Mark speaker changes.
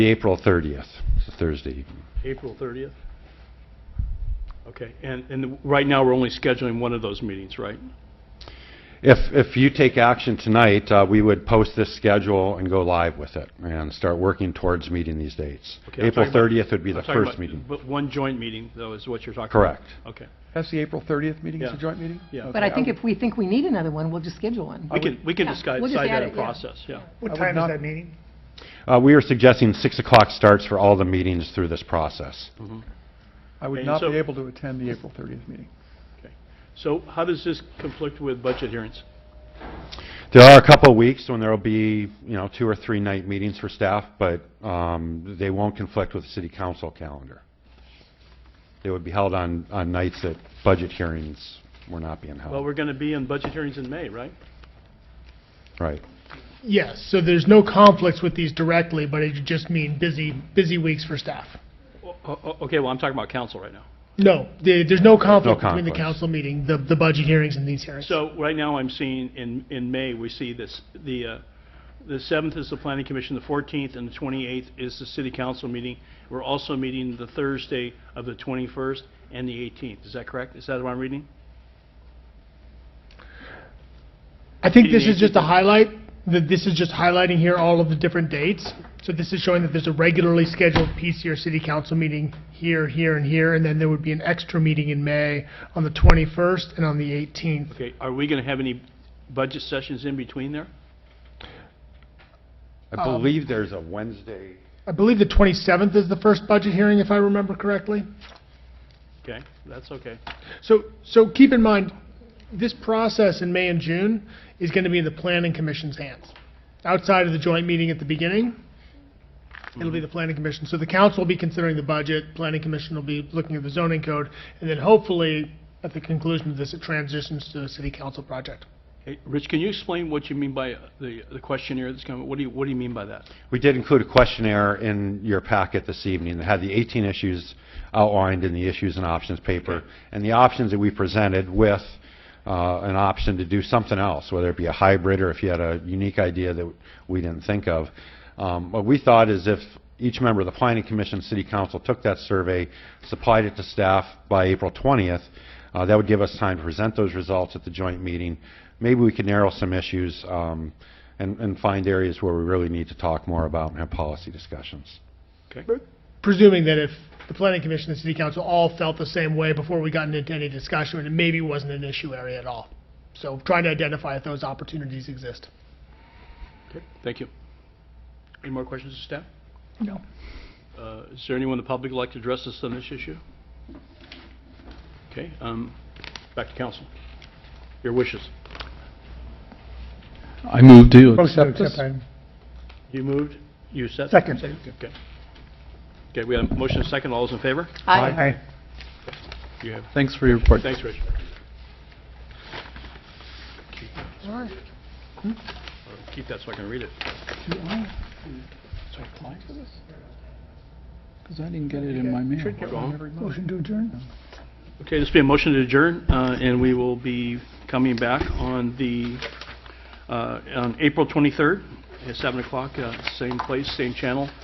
Speaker 1: April 30th, it's a Thursday evening.
Speaker 2: April 30th? Okay, and, and right now, we're only scheduling one of those meetings, right?
Speaker 1: If, if you take action tonight, uh, we would post this schedule and go live with it and start working towards meeting these dates.
Speaker 2: Okay, I'm
Speaker 1: April
Speaker 2: talking about-
Speaker 1: 30th would be the
Speaker 2: I'm talking
Speaker 1: first
Speaker 2: about-
Speaker 1: meeting.
Speaker 2: But one joint meeting, though, is what you're talking about?
Speaker 1: Correct.
Speaker 3: Uh,
Speaker 2: Correct. Okay,
Speaker 4: That's the April 30th meeting, it's a
Speaker 2: Yeah.
Speaker 4: joint meeting?
Speaker 2: Yeah.
Speaker 4: Okay,
Speaker 3: But I think
Speaker 4: would-
Speaker 3: if we think we need another one, we'll just schedule one.
Speaker 2: we can, we can
Speaker 3: yeah,
Speaker 2: decide
Speaker 3: we'll just
Speaker 2: decide
Speaker 3: add
Speaker 2: that in
Speaker 3: it, yeah.
Speaker 2: process, yeah.
Speaker 4: I
Speaker 5: What
Speaker 4: would
Speaker 5: time
Speaker 4: not-
Speaker 5: is that meeting?
Speaker 1: Uh, We are suggesting 6 o'clock starts for all the meetings through this process.
Speaker 4: I would
Speaker 2: And
Speaker 4: not
Speaker 2: so-
Speaker 4: be able to attend the April 30th meeting.
Speaker 2: So how does this conflict with budget hearings?
Speaker 1: There are a couple of weeks when there'll be, you know, two or three night meetings for staff, but um, they won't conflict with the city council calendar. They would be held on, on nights that budget hearings were not being
Speaker 2: Well,
Speaker 1: held.
Speaker 2: we're going to be in budget hearings in May, right?
Speaker 1: Right.
Speaker 5: Yes, so there's no conflicts with these directly, but it just mean busy, busy weeks for staff.
Speaker 1: Oh.
Speaker 2: O- o- Oh, Okay, well, I'm talking about council right now.
Speaker 5: No, there- there's no conflict between the
Speaker 1: conflicts.
Speaker 5: council meeting, the, the budget hearings and these hearings.
Speaker 2: So right now, I'm seeing in, in May, we see this, the, uh, the 7th is the planning commission, the 14th and the 28th is the city council meeting. We're also meeting the Thursday of the 21st and the 18th. Is that correct? Is that what I'm reading?
Speaker 5: I think
Speaker 2: Meeting
Speaker 5: this is just a
Speaker 2: date.
Speaker 5: highlight, that this is just highlighting here all of the different dates. So this is showing that there's a regularly scheduled PCR city council meeting here, here, and here, and then there would be an extra meeting in May on the 21st and on the 18th.
Speaker 2: Okay, are we going to have any budget sessions in between there?
Speaker 1: I believe there's a Wednesday.
Speaker 5: I believe the 27th is the first budget hearing, if I remember correctly.
Speaker 2: Okay, that's okay.
Speaker 5: So, so keep in mind, this process in May and June is going to be in the planning commission's hands. Outside of the joint meeting at the beginning, it'll be the planning commission. So the council will be considering the budget, planning commission will be looking at the zoning code, and then hopefully, at the conclusion of this, it transitions to a city council project.
Speaker 2: Hey, Rich, can you explain what you mean by uh, the the questionnaire that's coming? What do you, what do you mean by that?
Speaker 1: We did include a questionnaire in your packet this evening that had the 18 issues outlined in the issues and options paper, and the options that we presented with uh, an option to do something else, whether it be a hybrid or if you had a unique idea that we didn't think of. Um, What we thought is if each member of the Planning Commission, City Council took that survey, supplied it to staff by April 20th, uh, that would give us time to present those results at the joint meeting. Maybe we could narrow some issues um, and, and find areas where we really need to talk more about and have policy discussions.
Speaker 5: Presuming that if the planning commission and city council all felt the same way before we gotten into any discussion, it maybe wasn't an issue area at all. So trying to identify if those opportunities exist.
Speaker 2: Okay, thank you. Any more questions to staff?
Speaker 5: No.
Speaker 2: Uh, Is there anyone in the public who'd like to address us on this issue? Okay, um, back to council. Your wishes.
Speaker 6: I move to accept this.
Speaker 5: Accept
Speaker 2: You moved, you said?
Speaker 5: Second.
Speaker 2: Okay. Okay, we have a motion and a second. All those in favor?
Speaker 3: Aye.
Speaker 2: You have,
Speaker 6: Thanks for your report.
Speaker 2: thanks, Rich. uh, Keep that so I can read it.
Speaker 6: Do I, do I apply for this? Because I didn't get it in my mail.
Speaker 2: Go home.
Speaker 4: Motion to adjourn?
Speaker 2: Okay, this will be a motion to adjourn, uh, and we will be coming back on the, uh, on April 23rd at 7 o'clock, uh, same place, same channel.